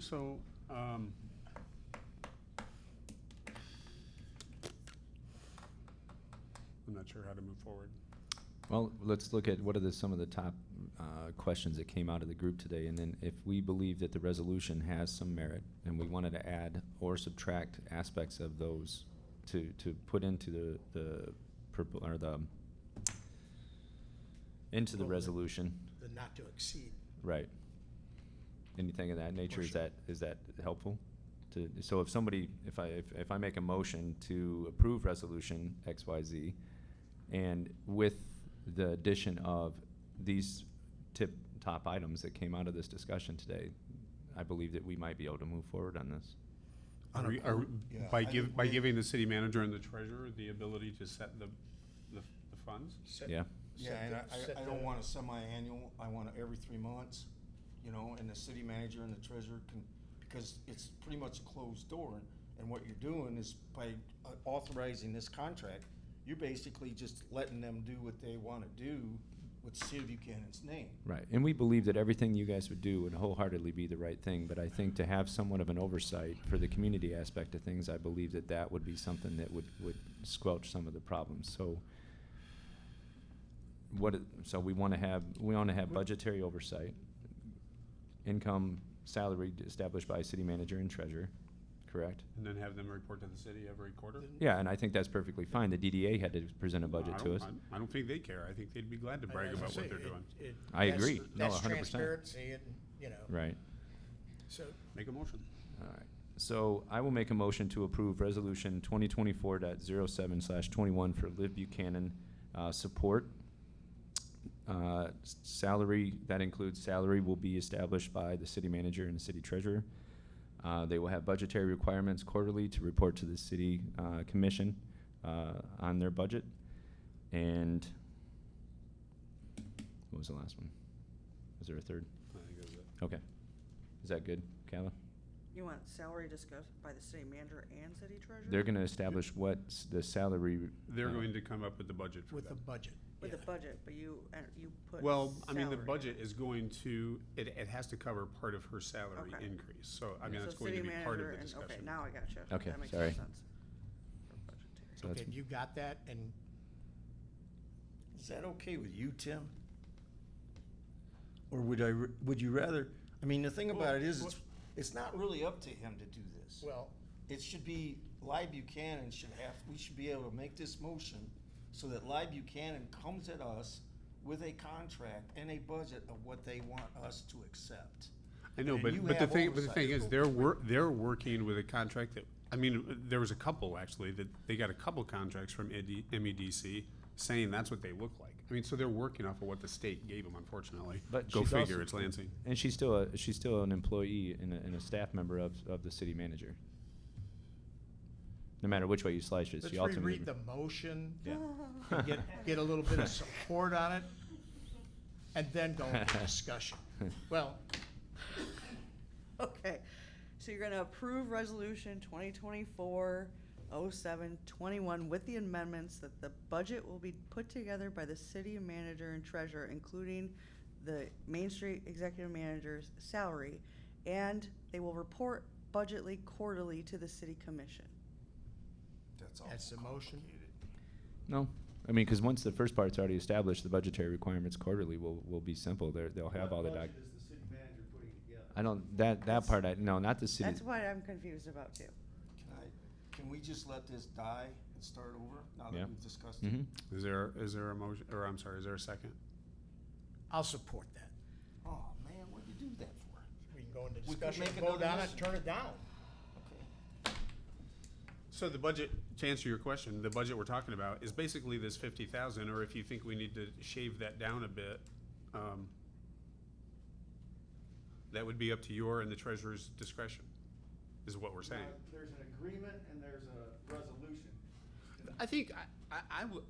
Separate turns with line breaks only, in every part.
so, um, I'm not sure how to move forward.
Well, let's look at what are the, some of the top uh, questions that came out of the group today, and then if we believe that the resolution has some merit, and we wanted to add or subtract aspects of those to, to put into the, the, purpo- or the, into the
Well, the-
resolution,
the not to exceed.
right? Anything of that nature, is
Motion.
that, is that helpful? To, so if somebody, if I, if, if I make a motion to approve resolution X, Y, Z, and with the addition of these tip, top items that came out of this discussion today, I believe that we might be able to move forward on this.
On
Are
a
we- are we-
Yeah,
By
I
giv
think
by
we-
giving the city manager and the treasurer the ability to set the, the the funds?
set-
Yeah,
Yeah,
set
and
the-
I-
set
I, I don't
the-
want a semi-annual, I want it every three months, you know, and the city manager and the treasurer can, because it's pretty much a closed door. And what you're doing is by uh, authorizing this contract, you're basically just letting them do what they wanna do with City of Buchanan's name.
right. And we believe that everything you guys would do would wholeheartedly be the right thing, but I think to have somewhat of an oversight for the community aspect of things, I believe that that would be something that would, would squelch some of the problems, so. What, it- so we wanna have, we wanna have budgetary oversight, income, salary established by city manager and treasurer, correct?
And then have them report to the city every quarter?
Yeah, and I think that's perfectly fine. The DDA had to present a
No, I
budget to
don't-
us.
I I don't think they care. I think they'd be glad to
I-
brag
as I
about
say,
what they're
it-
doing.
it-
I
that's-
agree. No,
That's
100%.
transparency and, you know,
Right,
so
Make a motion.
all right. So I will make a motion to approve resolution twenty twenty-four dot zero seven slash twenty-one for Liv Buchanan, uh, support. Uh, s- salary, that includes salary will be established by the city manager and the city treasurer. Uh, they will have budgetary requirements quarterly to report to the city, uh, commission, uh, on their budget. And what was the last one? Was there a third?
I think that's it.
Okay. Is that good, Kava?
You want salary discussed by the city manager and city treasurer?
They're gonna establish what s- the salary.
They're
uh,
going to come up with the budget for
with the
that.
budget.
With a
yeah.
budget, but you, uh, you put.
Well, I mean, the
salary.
budget is going to, it, it has to cover part of her salary
Okay.
increase. So, I
Yeah.
mean, that's
So
going to
city
be part of
manager
the
and-
discussion.
Okay, now I got you.
Okay,
That makes
sorry.
more sense. For budgetary.
so
Okay,
that's-
you got that, and
Is that okay with you, Tim? Or would I, r- would you rather, I mean, the thing about it is, it's, it's not really up to him to do this.
Well,
it should be, Ly Buchanan should have, we should be able to make this motion so that Ly Buchanan comes at us with a contract and a budget of what they want us to accept.
I know,
And you
but, but the
have
thing, but the
oversight.
thing is, they're wor- they're working with a contract that, I mean, there was a couple actually, that they got a couple contracts from ED MEDC E saying that's what they look like. I mean, so they're working off of what the state gave them, unfortunately.
But
Go
she's
figure,
also-
it's Lansing.
And she's still a, she's still an employee and a, and a staff member of, of the city manager. No matter which way you slice it,
let's
she ultimately.
reread the motion,
Yeah.
and get, get a little bit of support on it, and then go into discussion. Well,
Okay, so you're gonna approve resolution twenty twenty-four oh seven twenty-one with the amendments that the budget will be put together by the city manager and treasurer, including the Main Street executive manager's salary, and they will report budgetly quarterly to the city commission.
That's all.
that's the motion.
No, I mean, cause once the first part's already established, the budgetary requirements quarterly will, will be simple. They're, they'll have all the doc.
What budget is the city manager putting together?
I don't, that, that part, I, no, not the city.
That's what I'm confused about too.
Can I, can we just let this die and start over now
Yeah.
that we've discussed it?
hmm
Is there, is there a motion, or I'm sorry, is there a second?
I'll support that.
Oh, man, what'd you do that for?
We can go into
We could
discussion,
make
vote
another
on it,
motion.
turn it down.
Okay.
So the budget, to answer your question, the budget we're talking about is basically this fifty thousand, or if you think we need to shave that down a bit, um, that would be up to your and the treasurer's discretion, is what we're saying.
Now, There's an agreement and there's a resolution.
I think, I, I, I would,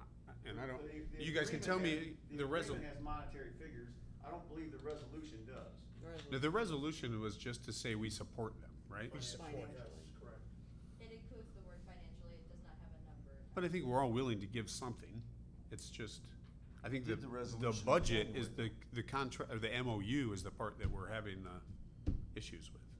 and I don't,
The- the
you guys can
agreement
tell
has-
me, the resol,
agreement has monetary figures. I don't believe the resolution does.
no, the resolution was just to say we support them, right?
We support it.
That's correct.
It includes the word financially, it does not have a number attached.
But I think we're all willing to give something. It's just, I think the,
Did the
the
resolution in
budget is the,
January.
the contract, or the MOU is the part that we're having the issues with.